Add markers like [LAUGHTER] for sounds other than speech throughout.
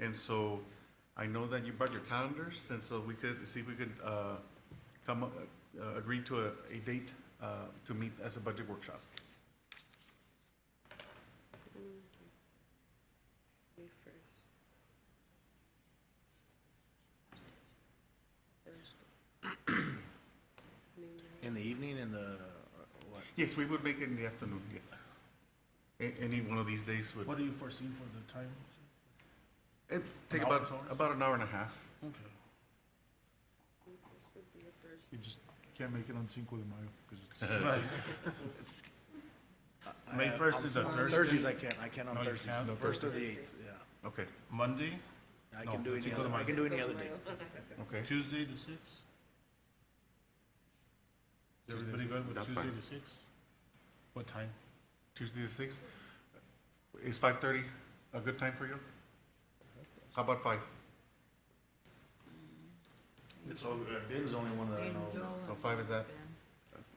And so I know that you brought your calendars, and so we could, see if we could uh, come, up- uh, agree to a, a date uh, to meet as a budget workshop. May first. Thursday. May ninth. In the evening, in the, uh, what? Yes, we would make it in the afternoon, yes. A- Any one of these days would, What do you foresee for the time? it'd take An hour, about, two hours? about an hour and a half. Okay. May first would be a Thursday. You just can't make it on Cinco de Mayo because it's. [LAUGHS] Right. It's- I- May I- 1st Uh, on- is a on Thursday? Thursdays, I can't, I can't on No, you Thursdays, can't? the Okay. first or the eighth, yeah. Okay, Monday, I No, can do any Cinco de other, I Mayo. can do any other day. okay. Tuesday the sixth? Is everybody good with That's Tuesday fine. the sixth? What time? Tuesday the sixth. Is five thirty a good time for you? How about five? It's, all- uh, Ben's the only one that I know. Oh, five is that?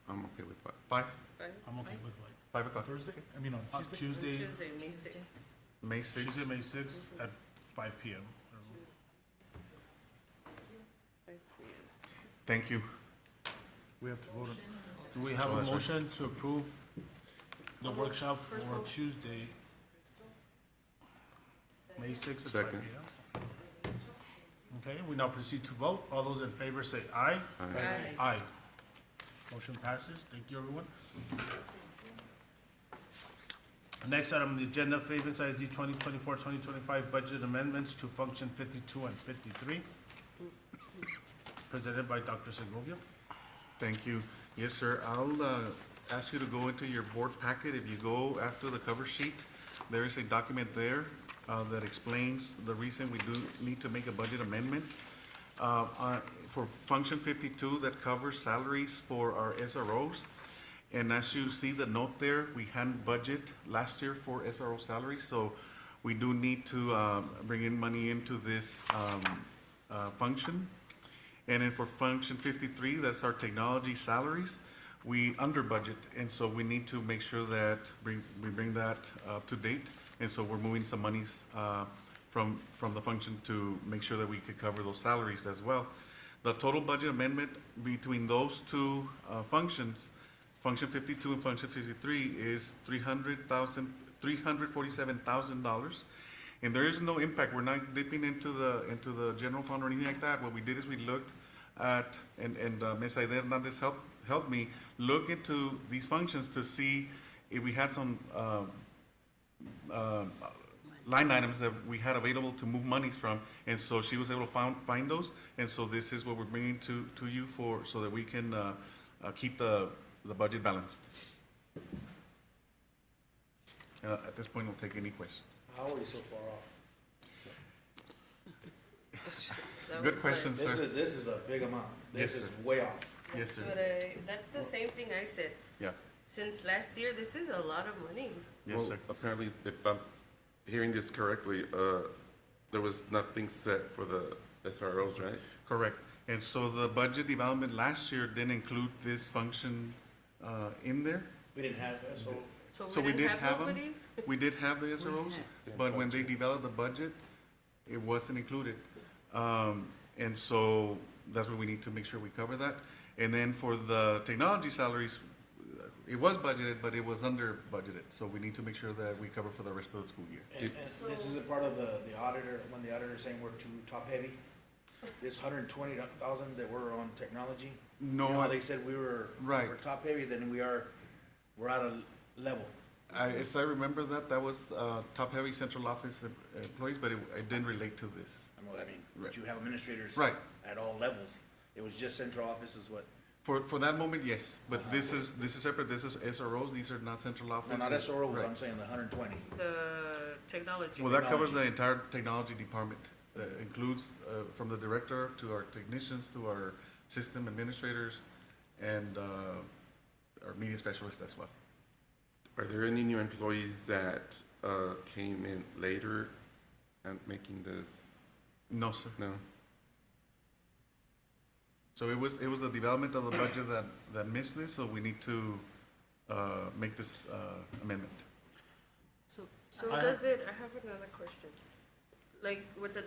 I'm okay with five. Five, Right? I'm okay with like, five o'clock. Thursday, I mean, uh, on Tuesday. On Tuesday, Tuesday, May sixth. May sixth. Tuesday, May sixth at five P M. Five P M. Thank you. We have to vote on, Do we have Oh, a that's right. motion to approve the workshop First for one. Tuesday? May sixth at five P M? Second. Okay, we now proceed to vote. All those in favor say aye. Aye. Aye. Motion passes. Thank you, everyone. Next item on the agenda, favor size D 2024-2025 budget amendments to function 52 and 53, presented by Dr. Segovia. Thank you. Yes, sir. I'll uh, ask you to go into your board packet. If you go after the cover sheet, there is a document there uh, that explains the reason we do need to make a budget amendment. Uh, uh, For Function 52, that covers salaries for our SROs. And as you see the note there, we hadn't budget last year for SRO salaries, so we do need to uh, bring in money into this um, uh, function. And then for function fifty-three, that's our technology salaries, we under budget, and so we need to make sure that, bring, we bring that up to date. And so we're moving some monies, uh, from, from the function to make sure that we could cover those salaries as well. The total budget amendment between those two, uh, functions, function fifty-two and function fifty-three is three hundred thousand, three hundred forty-seven thousand dollars. And there is no impact, we're not dipping into the, into the general fund or anything like that. What we did is we looked at, and, and uh, Ms. Aide Hernandez helped, helped me look into these functions to see if we had some, um, um, line items that we had available to move monies from, and so she was able to found, find those, and so this is what we're bringing to, to you for, so that we can, uh, uh, keep the, the budget balanced. And uh, at this point, we'll take any questions. How are you so far off? [LAUGHS] That was Good my- question, This sir. is, this is a big amount. This Yes, sir. is way off. Yes, That's what sir. I, that's the same thing I said. Yeah, Since last year, this is a lot of money. yes, Well, sir. Apparently, if I'm hearing this correctly, uh, there was nothing set for the SROs, right? Correct. And so the budget development last year didn't include this function, uh, in there. We didn't have, so, So we didn't did have nobody? [LAUGHS] them, we did have the SROs, but when they developed the budget, it wasn't included. Um, and so that's where we need to make sure we cover that. And then for the technology salaries, it was budgeted, but it was under budgeted, so we need to make sure that we cover for the rest of the school year. and, and this isn't part of the, the auditor, when the auditor's saying we're too top heavy. This hundred and twenty thousand that we're on technology. you No, know how I- They said we were. Right. We're top heavy, then we are, we're at a level. I, as I remember that, that was, uh, top-heavy central office em- employees, but it, it didn't relate to this. I know what I mean, Right. but you have administrators. Right. At all levels. It was just central office is what, For, for that moment, yes, but this is, this is separate, this is SROs, these are not central office. no, not SRO, Right. I'm saying the hundred and twenty. The technology. Well, that covers the entire technology department. Uh, Includes uh, from the director to our technicians to our system administrators and uh, our media specialists as well. Are there any new employees that uh, came in later and making this? No, sir. No? So it was, it was the development of the budget that, that missed this, so we need to uh, make this uh, amendment. So I does it, I have another question. like with the